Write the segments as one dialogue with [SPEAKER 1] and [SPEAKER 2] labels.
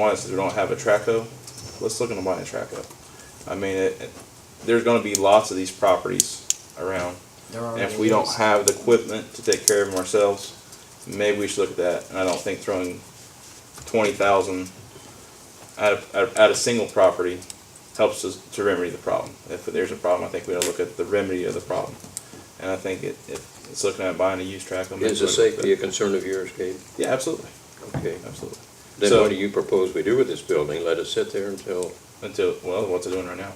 [SPEAKER 1] ones that don't have a Traco, let's look into buying a Traco. I mean, it, it- there's gonna be lots of these properties around.
[SPEAKER 2] There
[SPEAKER 1] And
[SPEAKER 2] are.
[SPEAKER 1] if we don't have the equipment to take care of them ourselves, maybe we should look at that. And I don't think throwing twenty thousand at, a- at, at a single property helps us to remedy the problem. If there's a problem, I think we ought to look at the remedy of the problem. And I think it, it- it's looking at buying a used Traco. maybe
[SPEAKER 3] Is the
[SPEAKER 1] we'll look at
[SPEAKER 3] safety a
[SPEAKER 1] that.
[SPEAKER 3] concern of yours, Gabe?
[SPEAKER 1] Yeah, absolutely,
[SPEAKER 3] Okay.
[SPEAKER 1] absolutely.
[SPEAKER 3] Then
[SPEAKER 1] So-
[SPEAKER 3] what do you propose we do with this building? Let it sit there until,
[SPEAKER 1] Until, well, what's it doing right now?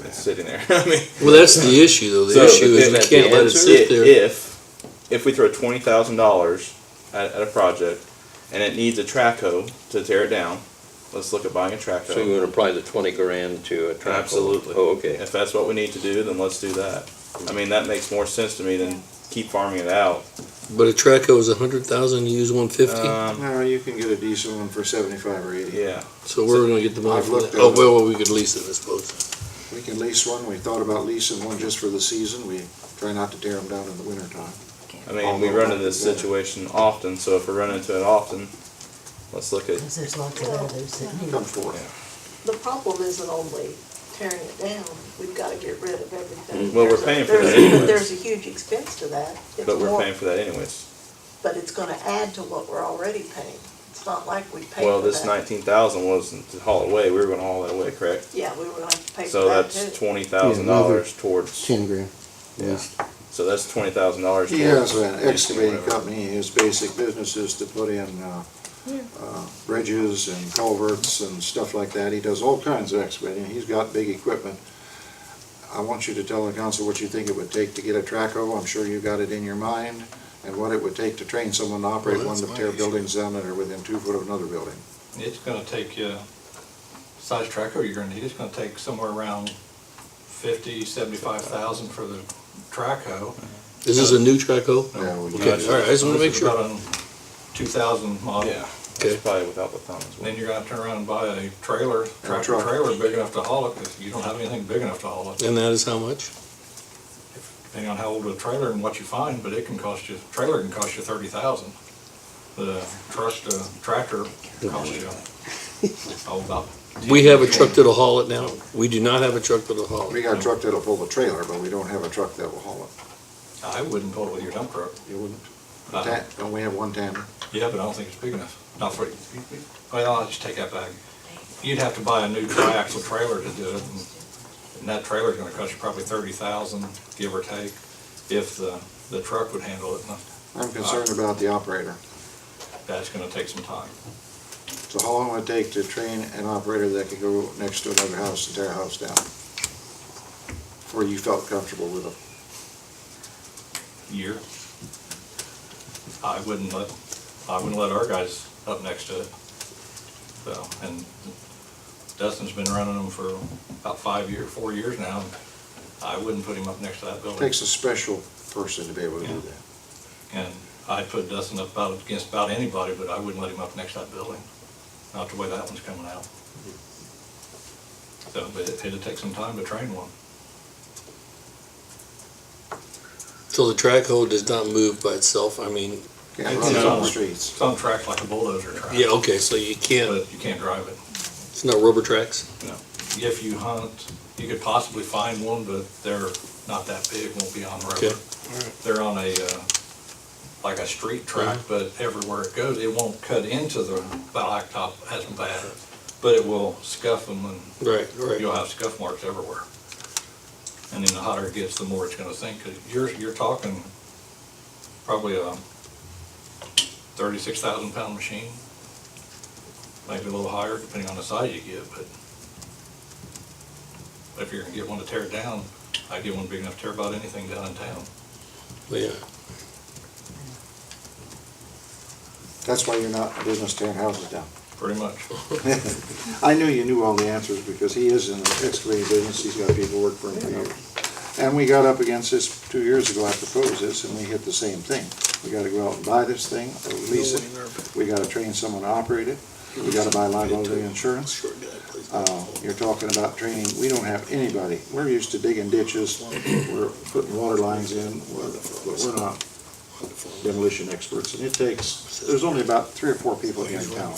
[SPEAKER 1] It's sitting there. I mean,
[SPEAKER 4] Well, that's the issue, though. The
[SPEAKER 1] So,
[SPEAKER 4] issue
[SPEAKER 1] if
[SPEAKER 4] is we
[SPEAKER 3] that's
[SPEAKER 4] can't
[SPEAKER 3] the
[SPEAKER 4] let it
[SPEAKER 3] answer,
[SPEAKER 4] sit there.
[SPEAKER 1] if if we throw twenty thousand dollars at, at a project and it needs a track hoe to tear it down, let's look at buying a track
[SPEAKER 3] so you
[SPEAKER 1] hoe.
[SPEAKER 3] would apply the twenty grand to a track?
[SPEAKER 1] Absolutely.
[SPEAKER 3] Oh, okay.
[SPEAKER 1] If that's what we need to do, then let's do that. I mean, that makes more sense to me than keep farming it out.
[SPEAKER 4] But a Traco is a hundred thousand. You use one fifty,
[SPEAKER 1] Um,
[SPEAKER 5] No, you can get a decent one for seventy-five or eighty.
[SPEAKER 1] yeah,
[SPEAKER 4] so where are we gonna get the money
[SPEAKER 5] I've
[SPEAKER 4] for that?
[SPEAKER 5] looked
[SPEAKER 4] Oh
[SPEAKER 5] at-
[SPEAKER 4] well, we could lease it, I suppose.
[SPEAKER 5] We can lease one, we thought about leasing one just for the season, we try not to tear them down in the wintertime.
[SPEAKER 1] I mean, we run into this
[SPEAKER 5] Yeah.
[SPEAKER 1] situation often, so if we run into it often, let's look at.
[SPEAKER 6] Because there's lots of others that
[SPEAKER 4] Mm-hmm.
[SPEAKER 6] need.
[SPEAKER 5] Come forward.
[SPEAKER 7] The problem isn't only tearing it down, we've gotta get rid of everything.
[SPEAKER 1] Mm, Well, we're
[SPEAKER 7] There's a-
[SPEAKER 1] paying for that
[SPEAKER 7] there's a-
[SPEAKER 1] anyways.
[SPEAKER 7] There's a huge expense to that. It's
[SPEAKER 1] But we're
[SPEAKER 7] more-
[SPEAKER 1] paying for that anyways.
[SPEAKER 7] But it's gonna add to what we're already paying. It's not like we paid for that.
[SPEAKER 1] Well, this nineteen thousand wasn't to haul away. We were going to haul that away, correct?
[SPEAKER 7] Yeah, we were gonna have to pay for
[SPEAKER 1] So
[SPEAKER 7] that
[SPEAKER 1] that's
[SPEAKER 7] too.
[SPEAKER 1] twenty thousand dollars towards. Ten grand. Yeah, so that's twenty thousand dollars.
[SPEAKER 5] He has an excavating company, his basic business is to put in, uh, uh, bridges and culverts and stuff like that, he does all kinds of excavating, he's got big equipment. I want you to tell the council what you think it would take to get a traco, I'm sure you got it in your mind, and what it would take to train someone to operate
[SPEAKER 4] Well,
[SPEAKER 5] one
[SPEAKER 4] that's
[SPEAKER 5] to
[SPEAKER 4] my
[SPEAKER 5] tear
[SPEAKER 4] issue.
[SPEAKER 5] buildings down that are within two foot of another building.
[SPEAKER 8] It's gonna take you, size tracker you're gonna need, it's gonna take somewhere around fifty, seventy-five thousand for the track hoe.
[SPEAKER 4] Is this a new Traco?
[SPEAKER 5] Yeah, we
[SPEAKER 4] Okay,
[SPEAKER 5] got it.
[SPEAKER 4] all right. I just want to make sure.
[SPEAKER 8] Two thousand model,
[SPEAKER 1] Yeah,
[SPEAKER 4] Okay.
[SPEAKER 1] it's probably without the thumb as well.
[SPEAKER 8] then you're gonna turn around and buy a trailer, tractor
[SPEAKER 5] truck.
[SPEAKER 8] trailer big enough to haul it, 'cause you don't have anything big enough to haul it.
[SPEAKER 4] And that is how much?
[SPEAKER 8] Depending on how old the trailer and what you find, but it can cost you, trailer can cost you thirty thousand. The truck, uh, tractor costs you, oh, about.
[SPEAKER 4] We have a
[SPEAKER 8] 10,
[SPEAKER 4] truck that'll haul it now. We do not have a truck that'll haul
[SPEAKER 5] We
[SPEAKER 4] it.
[SPEAKER 5] got a truck that'll pull the trailer, but we don't have a truck that will haul
[SPEAKER 8] I wouldn't pull it with your dump truck.
[SPEAKER 5] it. You wouldn't?
[SPEAKER 8] Uh,
[SPEAKER 5] Ta- Don't we have one tandem?
[SPEAKER 8] Yeah, but I don't think it's big enough, not for, well, I'll just take that back. You'd have to buy a new triaxle trailer to do it, and- and that trailer's gonna cost you probably thirty thousand, give or take, if the, the truck would handle it, and
[SPEAKER 5] I'm concerned about the operator.
[SPEAKER 8] that's gonna take some time.
[SPEAKER 5] So how long would it take to train an operator that could go next to another house and tear a house down? Or you felt comfortable with them?
[SPEAKER 8] Year. I wouldn't let, I wouldn't let our guys up next to it, so, and Dustin's been running them for about five year, four years now, and I wouldn't put him up next to that building.
[SPEAKER 5] Takes a special person to be able to do that.
[SPEAKER 8] And I'd put Dustin up about, against about anybody, but I wouldn't let him up next to that building, not the way that one's coming out. So, but it- it'd take some time to train one.
[SPEAKER 4] So the Traco does not move by itself. I mean,
[SPEAKER 5] Can't
[SPEAKER 8] It's
[SPEAKER 5] run it on
[SPEAKER 8] on-
[SPEAKER 5] the streets.
[SPEAKER 8] It's on track like a bulldozer track.
[SPEAKER 4] yeah, okay. So you can't.
[SPEAKER 8] But you can't drive it.
[SPEAKER 4] It's not rubber tracks.
[SPEAKER 8] If you hunt, you could possibly find one, but they're not that big, won't be on
[SPEAKER 4] Okay.
[SPEAKER 8] road. They're on a, uh, like a street track, but everywhere it goes, it won't cut into the blacktop as bad, but it will scuff them and
[SPEAKER 4] Right. Right.
[SPEAKER 8] you'll have scuff marks everywhere. And then the hotter it gets, the more it's gonna sink, because you're, you're talking probably a thirty-six thousand pound machine. Maybe a little higher, depending on the size you get, but if you're gonna get one to tear it down, I'd get one big enough to tear about anything down in town.
[SPEAKER 4] Yeah.
[SPEAKER 5] That's why you're not in business tearing houses down.
[SPEAKER 8] Pretty much.
[SPEAKER 5] I knew you knew all the answers because he is in the excavating business, he's got people work for him for years. And we got up against this two years ago, I proposed this, and we hit the same thing. We gotta go out and buy this thing, or lease it, we gotta train someone to operate it, we gotta buy liability insurance.
[SPEAKER 4] Short guy, please.
[SPEAKER 5] Uh, you're talking about training, we don't have anybody, we're used to digging ditches, we're putting water lines in, we're- but we're not demolition experts, and it takes, there's only about three or four people here in town